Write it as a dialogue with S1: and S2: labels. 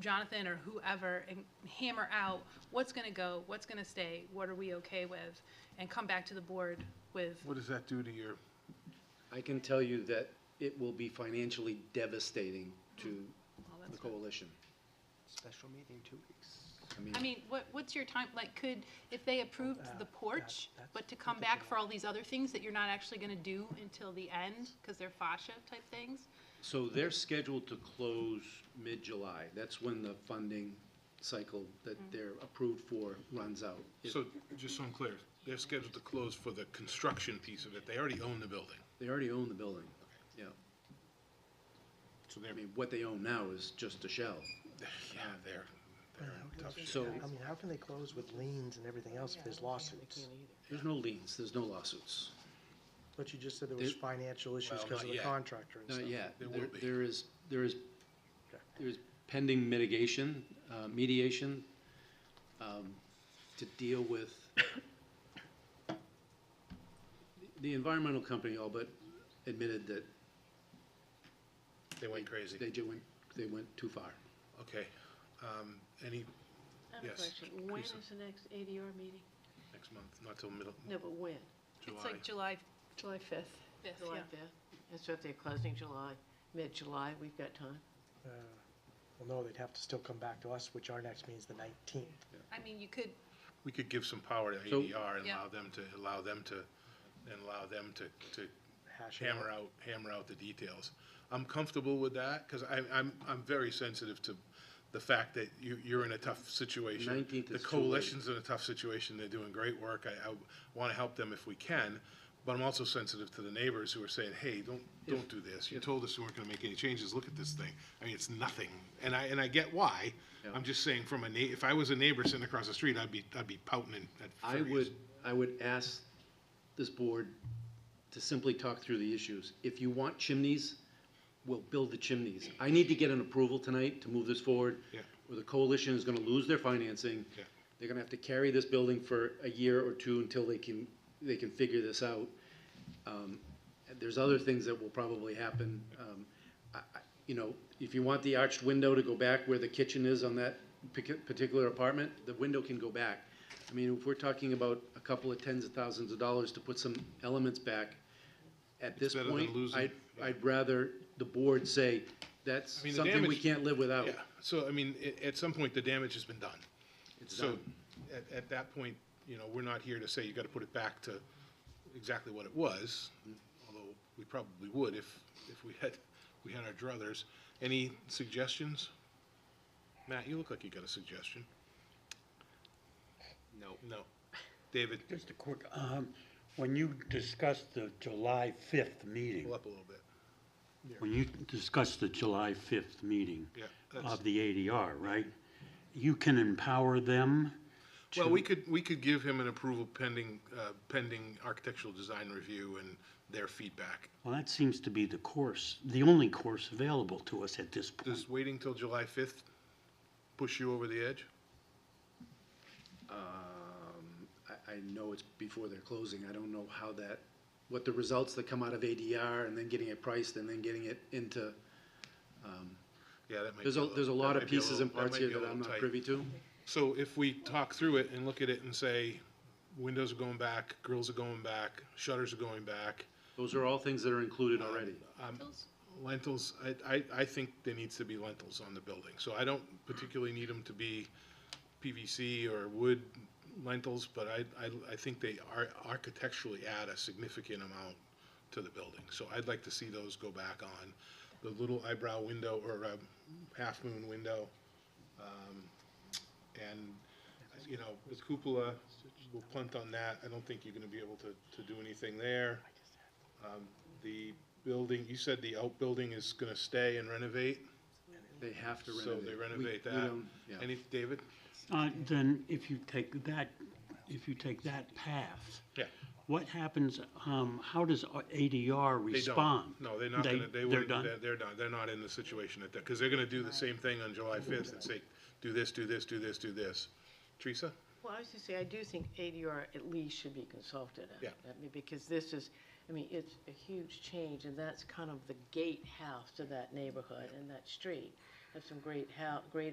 S1: Jonathan or whoever and hammer out what's going to go, what's going to stay, what are we okay with, and come back to the board with,
S2: What does that do to your,
S3: I can tell you that it will be financially devastating to
S1: Oh, well,
S3: the
S1: that's not-
S3: coalition.
S4: Special meeting, two weeks.
S3: I mean,
S1: I mean, what, what's your time, like, could, if they approved the porch, but to come back for all these other things that you're not actually gonna do until the end, because they're fascia type things?
S3: so they're scheduled to close mid-July. That's when the funding cycle that
S1: Mm-hmm.
S3: they're approved for runs out. If
S2: so, just so I'm clear, they're scheduled to close for the construction piece of it. They already own the building.
S3: They already own the building, yeah.
S2: So
S3: I
S2: they're,
S3: mean, what they own now is just a shell.
S2: yeah, they're, they're in tough shape.
S3: So
S4: I mean, how can they close with liens and everything else if there's lawsuits?
S3: there's no liens, there's no lawsuits.
S4: But you just said there was
S3: There-
S4: financial issues
S2: Well,
S4: because
S2: not
S4: of the
S2: yet.
S4: contractor and
S3: Not
S4: stuff.
S3: yet.
S2: There will
S3: There-
S2: be.
S3: There is, there is,
S4: Okay.
S3: there is pending mitigation, uh, mediation, um, to deal with the environmental company all but admitted that
S2: They went crazy.
S3: they ju- went, they went too far.
S2: Okay, um, any,
S5: I have a
S2: Yes,
S5: question. When is
S2: Teresa.
S5: the next ADR meeting?
S2: next month, not till middle,
S5: No, but when?
S1: It's
S2: July.
S1: like July
S5: July 5th.
S1: fifth,
S5: July
S1: yeah.
S5: 5th. And so if they're closing July, mid-July, we've got time.
S4: Uh, Well, no, they'd have to still come back to us, which our next meeting's the nineteenth.
S1: I mean, you could,
S2: We could give some power to
S3: So-
S2: ADR and
S1: Yeah.
S2: allow them to, allow them to, and allow them to, to
S4: Hash it out.
S2: hammer out, hammer out the details. I'm comfortable with that, because I, I'm, I'm very sensitive to the fact that you, you're in a tough situation. The
S3: 19th is too late.
S2: coalition's in a tough situation, they're doing great work, I, I want to help them if we can, but I'm also sensitive to the neighbors who are saying, hey, don't, don't do this, you told us you weren't going to make any changes, look at this thing. I mean, it's nothing, and I, and I get why, I'm just saying from a na, if I was a neighbor sitting across the street, I'd be, I'd be pouting and and
S3: I
S2: furious.
S3: would, I would ask this board to simply talk through the issues. If you want chimneys, we'll build the chimneys. I need to get an approval tonight to move this forward.
S2: Yeah.
S3: Or the coalition is gonna lose their financing.
S2: Yeah.
S3: They're gonna have to carry this building for a year or two until they can, they can figure this out. Um, and There's other things that will probably happen. Um, I- I- You know, if you want the arched window to go back where the kitchen is on that pic- particular apartment, the window can go back. I mean, if we're talking about a couple of tens of thousands of dollars to put some elements back, at this
S2: better than
S3: point,
S2: losing,
S3: I'd,
S2: yeah.
S3: I'd rather the board say, that's
S2: I mean, the
S3: something we
S2: damage-
S3: can't live without.
S2: Yeah, so I mean, at, at some point, the damage has been done.
S3: It's
S2: So,
S3: done.
S2: at, at that point, you know, we're not here to say you gotta put it back to exactly what it was, although we probably would if, if we had, we had our druthers. Any suggestions? Matt, you look like you got a suggestion. No. No. David,
S6: Just a quick, um, when you discussed the July fifth meeting,
S2: pull up a little bit.
S6: when you discussed the July fifth meeting
S2: Yeah, that's-
S6: of the ADR, right? You can empower them
S2: Well, we could, we could give him an approval pending, uh, pending architectural design review and their feedback.
S6: Well, that seems to be the course, the only course available to us at this point.
S2: Does waiting till July fifth push you over the edge?
S3: Um, I, I know it's before they're closing, I don't know how that, what the results that come out of ADR and then getting it priced and then getting it into,
S2: Yeah, that might.
S3: there's
S2: be
S3: a,
S2: little-
S3: there's a
S2: that
S3: lot of
S2: might be a
S3: pieces
S2: little-
S3: and
S2: that
S3: parts
S2: might
S3: here
S2: be a
S3: that I'm
S2: little
S3: not
S2: tight.
S3: privy to.
S2: So if we talk through it and look at it and say, windows are going back, grills are going back, shutters are going back,
S3: Those are all things that are included
S2: Uh,
S3: already.
S2: lentils, I, I, I think there needs to be lentils on the building. So I don't particularly need them to be PVC or wood lentils, but I, I, I think they are architecturally add a significant amount to the building. So I'd like to see those go back on. The little eyebrow window or um, half-moon window, um, and, you know, with cupola, we'll punt on that. I don't think you're gonna be able to, to do anything there. Um, The building, you said the outbuilding is gonna stay and renovate,
S3: They have to
S2: so
S3: renovate.
S2: they
S3: We-
S2: renovate
S3: we
S2: that.
S3: don't- yeah.
S2: Any, David?
S6: Uh, then if you take that, if you take that path,
S2: Yeah.
S6: what happens, um, how does ADR
S2: They don't.
S6: respond?
S2: No, they're not
S6: They-
S2: gonna, they
S6: they're
S2: wouldn't,
S6: done?
S2: they're, they're not, they're not in the situation at that, cause they're gonna do the same thing on July fifth and say, do this, do this, do this, do this. Teresa?
S5: Well, I was just say, I do think ADR at least should be consulted. on
S2: Yeah.
S5: that, I mean, Because this is, I mean, it's a huge change, and that's kind of the gatehouse to that neighborhood and that street. There's some great hou, great